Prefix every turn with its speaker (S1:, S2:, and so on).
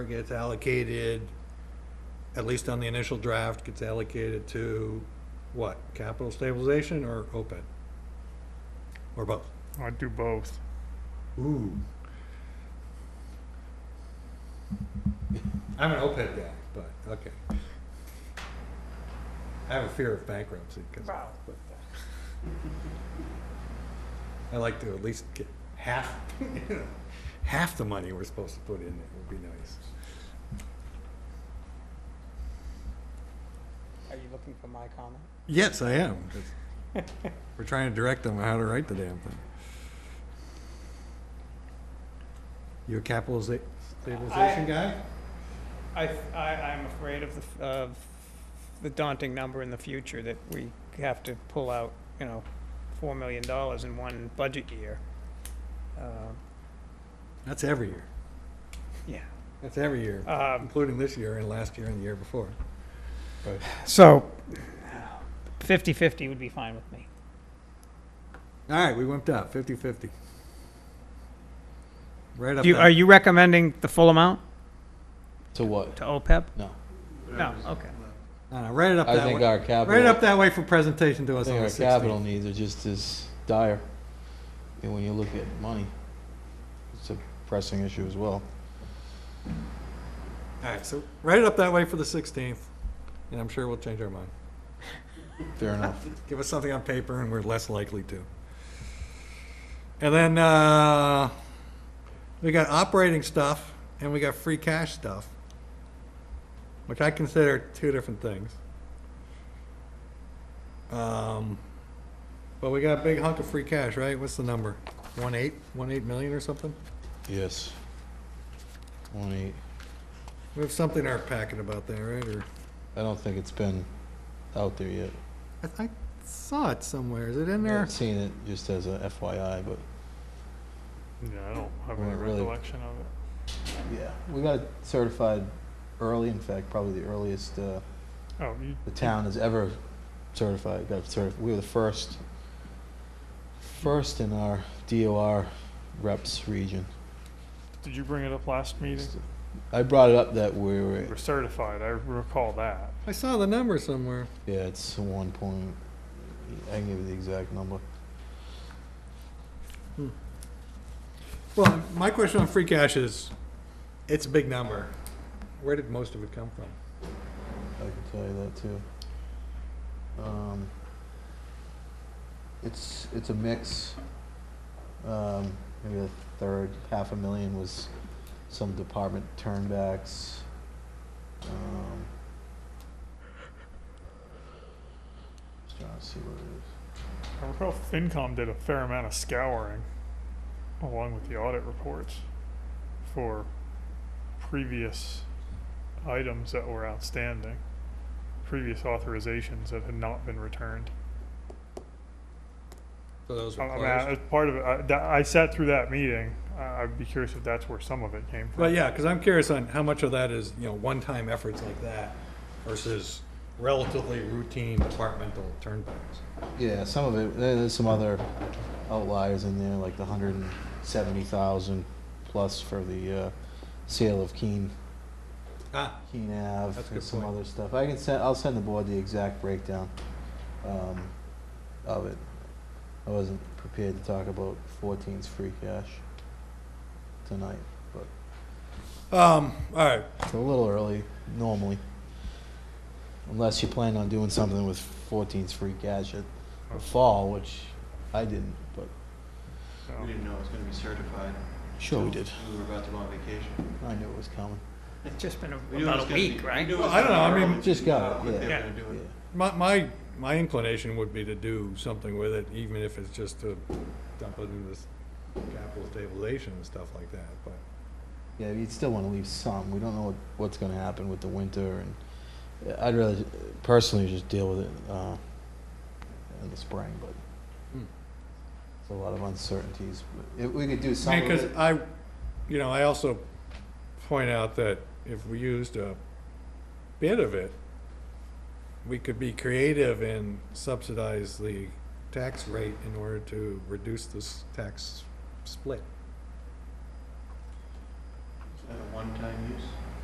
S1: gets allocated, at least on the initial draft, gets allocated to what? Capital stabilization or OPEB? Or both?
S2: I'd do both.
S1: Ooh. I'm an OPEB guy, but, okay. I have a fear of bankruptcy, because I like to at least get half, you know, half the money we're supposed to put in, it would be nice.
S3: Are you looking for my comment?
S1: Yes, I am. 'cause We're trying to direct them how to write the damn thing. You a capitaliza- stabilization guy?
S3: I, I, am afraid of the, f- of the daunting number in the future that we have to pull out, you know, four million dollars in one budget year. Um,
S1: That's every year.
S3: Yeah.
S1: That's every year,
S3: Um,
S1: including this year and last year and the year before.
S3: So, fifty-fifty would be fine with me.
S1: All right, we went up, 50-50. Right up
S3: You, are
S1: there.
S3: you recommending the full amount
S4: To what?
S3: to E OPEB?
S4: No.
S3: No, okay.
S1: No, no, Right it up
S4: I
S1: that
S4: think
S1: way.
S4: our capital,
S1: Right up that way for presentation to
S4: I
S1: us on
S4: think
S1: the
S4: our
S1: 16th.
S4: capital needs are just as dire. And when you look at money, it's a pressing issue as well.
S1: All right, so write it up that way for the 16th, and I'm sure we'll change our mind.
S4: Fair enough.
S1: Give us something on paper and we're less likely to. And then, uh, we got operating stuff and we got free cash stuff, which I consider two different things. Um, but we got a big hunk of free cash, right? What's the number? One eight, one eight million or something?
S4: Yes. One eight.
S1: We have something in our packet about that, right? Or,
S4: I don't think it's been out there yet.
S1: I, I saw it somewhere. Is it in
S4: I
S1: there?
S4: haven't seen it just as a FYI, but
S2: Yeah, I don't have
S4: Well,
S2: any
S4: it really-
S2: recollection of it.
S4: yeah, we got it certified early. In fact, probably the earliest uh,
S2: Oh, you,
S4: the town has ever certified. Got certified. We were the first, first in our DOR reps region.
S2: did you bring it up last meeting?
S4: I brought it up that we were,
S2: We're certified, I recall that.
S1: I saw the number somewhere.
S4: yeah, it's one point, I can give you the exact number.
S1: Well, my question on free cash is, it's a big number. Where did most of it come from?
S4: I can tell you that too. Um, it's, it's a mix. Um, maybe a third, half a million was some department turnbacks. Um, just trying to see what it is.
S2: I recall FinCom did a fair amount of scouring along with the audit reports for previous items that were outstanding, previous authorizations that had not been returned.
S1: So those
S2: I
S1: were
S2: I mean, I-
S1: closed?
S2: part of it, I, that- I sat through that meeting. I, I'd be curious if that's where some of it came from.
S1: Well, yeah, because I'm curious on how much of that is, you know, one-time efforts like that versus relatively routine departmental turnbacks.
S4: Yeah, some of it, there- there's some other outliers in there, like the hundred and seventy thousand plus for the, uh, sale of Keen,
S1: Ah,
S4: Keen Ave,
S1: That's a
S4: and
S1: good
S4: some
S1: point.
S4: other stuff. I can send, I'll send the board the exact breakdown, um, of it. I wasn't prepared to talk about 14's free cash tonight, but
S1: um, all right,
S4: it's a little early normally. Unless you plan on doing something with 14's free cash at the fall, which I didn't, but.
S2: So,
S5: We didn't know it was gonna be certified.
S4: Sure we
S5: until
S4: did.
S5: We were about to go on vacation.
S4: I knew it was coming.
S3: It's just been
S5: We knew it was
S3: about a
S5: gonna be-
S3: week,
S5: we
S3: right?
S5: knew it was
S1: Well, I don't
S5: gonna
S1: know,
S5: be
S1: I mean-
S5: early.
S4: Just
S5: We knew
S4: got
S5: how
S4: it,
S5: quick they
S3: yeah.
S5: were gonna do
S4: Yeah.
S5: it.
S1: my, my, my inclination would be to do something with it, even if it's just to dump it into this capital stabilization and stuff like that, but.
S4: Yeah, you'd still want to leave some. We don't know what, what's going to happen with the winter, and uh, I'd rather ju- personally just deal with it uh, in the spring. But
S1: Hmm.
S4: it's a lot of uncertainties. But if we could do some,
S1: I
S4: of
S1: because
S4: it-
S1: I, you know, I also point out that if we used a bit of it, we could be creative and subsidize the tax rate in order to reduce this tax split.
S5: Is that a one-time use?